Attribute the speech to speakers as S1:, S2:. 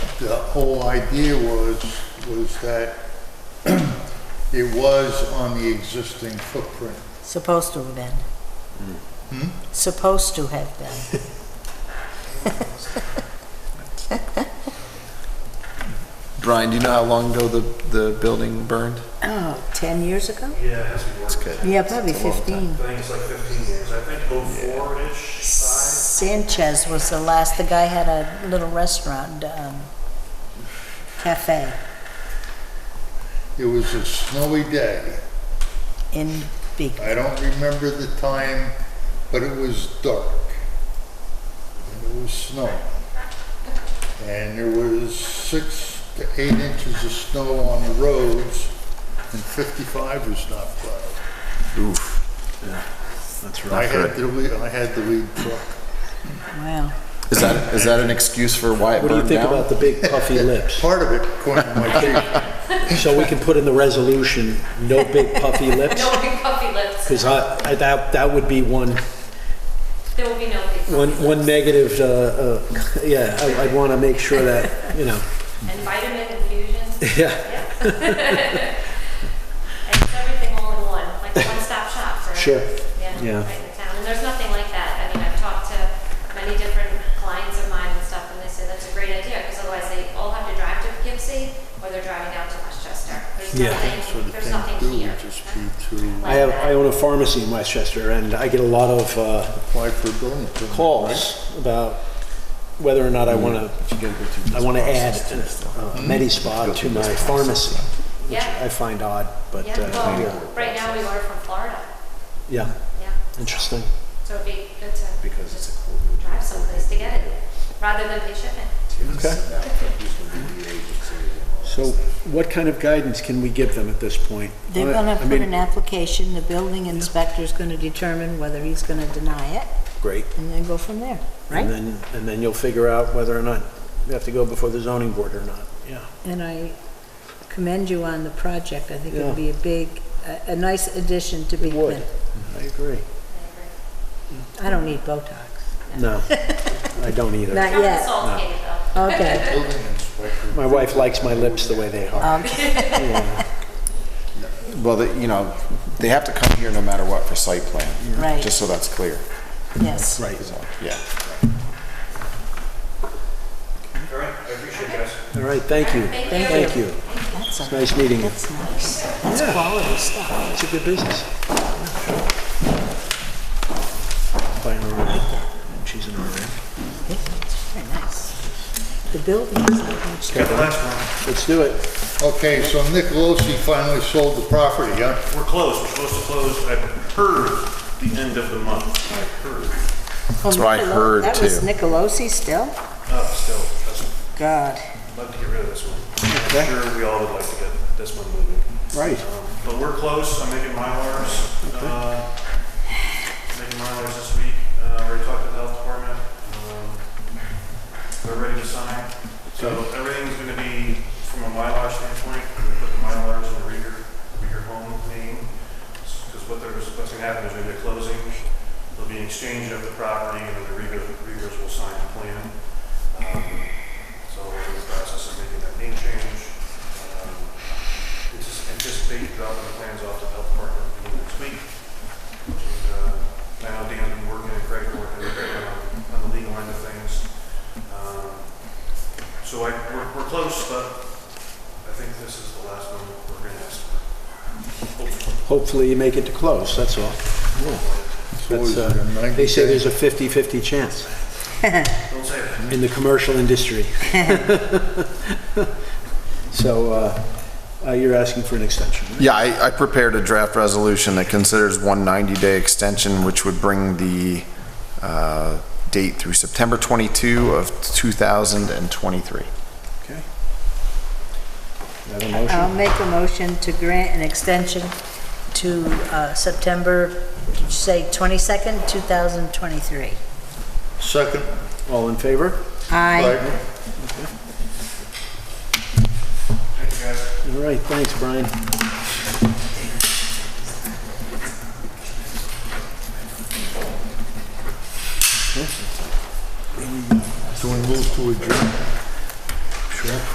S1: the whole idea was, was that it was on the existing footprint.
S2: Supposed to have been. Hmm?
S3: Hmm?
S2: Supposed to have been.
S4: Brian, do you know how long ago the, the building burned?
S2: Oh, 10 years ago?
S5: Yeah, it has to be
S4: It's
S5: worked.
S4: good.
S2: Yeah, probably
S4: It's a long
S2: 15.
S4: time.
S5: I think it's like 15 years. I think 04-ish, five.
S2: Sanchez was the last, the guy had a little restaurant, um, cafe
S1: It was a snowy day.
S2: in Big,
S1: I don't remember the time, but it was dark. And it was snow. And there was six to eight inches of snow on the roads, and 55 was not plowed.
S4: Oof. Yeah, that's
S1: I had
S4: right.
S1: the lead, I had the lead truck.
S2: wow.
S4: Is that, is that an excuse for why it
S3: What do you
S4: burned
S3: think about
S4: down?
S3: the big puffy lips?
S1: Part of it, according to my chief,
S3: So we can put in the resolution, no big puffy lips?
S6: No big puffy lips.
S3: Because I, I- that, that would be one,
S6: There will be no big puffy
S3: one,
S6: lips.
S3: one negative, uh, uh, yeah, I- I'd want to make sure that, you know,
S6: And vitamin infusions.
S3: yeah,
S6: Yeah. And it's everything all in one, like a one-stop shop for.
S3: Sure. Yeah.
S6: Yeah, right in the town. And there's nothing like that. I mean, I've talked to many different clients of mine and stuff, and they say that's a great idea, because otherwise they all have to drive to Poughkeepsie, or they're driving out to Westchester. There's
S3: Yeah.
S1: so
S6: nothing,
S1: the
S6: there's
S1: thing
S6: nothing
S1: to do
S6: here.
S1: would just be to
S3: I have, I own a pharmacy in Westchester and I get a lot of, uh,
S1: apply for a building permit.
S3: calls about whether or not I want to, I want to add uh, Medi-Spa to my pharmacy, which
S6: Yeah.
S3: I find odd, but,
S6: Yeah,
S3: uh, yeah.
S6: well, right now we order from Florida,
S3: yeah,
S6: yeah.
S3: interesting.
S6: So it'd be good to. Because it's a Drive someplace to get it, rather than pay shipping.
S3: Okay. So what kind of guidance can we give them at this point?
S2: They're gonna
S3: I
S2: put
S3: mean,
S2: an application, the building inspector's gonna determine whether he's gonna deny it,
S3: Great.
S2: and then go from there,
S3: And
S2: right?
S3: then, and then you'll figure out whether or not you have to go before the zoning board or not, yeah.
S2: And I commend you on the project. I think it'd
S3: Yeah.
S2: be a big, a, a nice addition to Big
S3: would.
S2: Bend.
S3: I agree.
S2: I don't need Botox.
S3: No, I don't either.
S2: Not
S6: Not the
S2: yet.
S6: salt gate though.
S2: Okay,
S1: Building inspector.
S3: My wife likes my lips the way they are.
S2: okay,
S4: Well, they- you know, they have to come here no matter what for site plan.
S2: Right.
S4: Just so that's clear.
S2: yes.
S3: Right.
S4: So, Yeah.
S5: All right, I appreciate it, guys.
S3: All right, thank you.
S6: Thank you.
S3: Thank you.
S2: That's a-
S3: Nice meeting you.
S2: That's nice. That's
S3: Yeah.
S2: quality stuff.
S3: It's a good business. By an RN. She's an RN.
S2: It's very nice. The building is not much.
S5: Got the last
S3: Let's do it.
S1: Okay, so Nicolosi finally sold the property, huh?
S5: one. We're closed. We're supposed to close, I've heard, the end of the month. I've heard.
S2: That's
S4: what I heard,
S2: Oh, That was
S4: too.
S2: Nicolosi still?
S5: Uh, still, I'd
S2: God.
S5: like to get rid of this one. I'm sure we all would like to get this one moving.
S3: Right.
S5: Um, But we're close, I'm making milars, uh, making milars this week. Uh, already talked to the health department. Um, They're ready to sign. So everything's gonna be, from a mylar standpoint, I'm gonna put the mylars in the Reader, Reader Home name. Because what there's, what's gonna happen is there'll be a closing, there'll be an exchange of the property, and then the Reader, Readers will sign the plan. Um, So we're in the process of making that name change. Um, it's just anticipate dropping the plans off to the health department beginning next week. And, uh, I know Dan's been working and Craig are working on- on the legal end of things. Um, So I, we're, we're close, but I think this is the last one we're gonna ask for. Hopefully,
S3: Hopefully you make it to close, that's all.
S1: It's
S3: That's,
S1: always
S3: uh,
S1: been 90
S3: They say
S1: days.
S3: there's a 50/50 chance
S5: don't say that.
S3: in the commercial industry. So uh, uh, you're asking for an extension, right?
S4: Yeah, I, I prepared a draft resolution that considers one 90-day extension, which would bring the uh, date through September 22 of 2023.
S3: Okay. Do I have a motion?
S2: I'll make a motion to grant an extension to uh, September, did you say 22nd, 2023?
S1: Second,
S3: All in favor?
S2: Aye.
S1: Biden.
S5: Thank you, guys.
S3: All right, thanks, Brian.
S1: So we move to adjourn. Sure.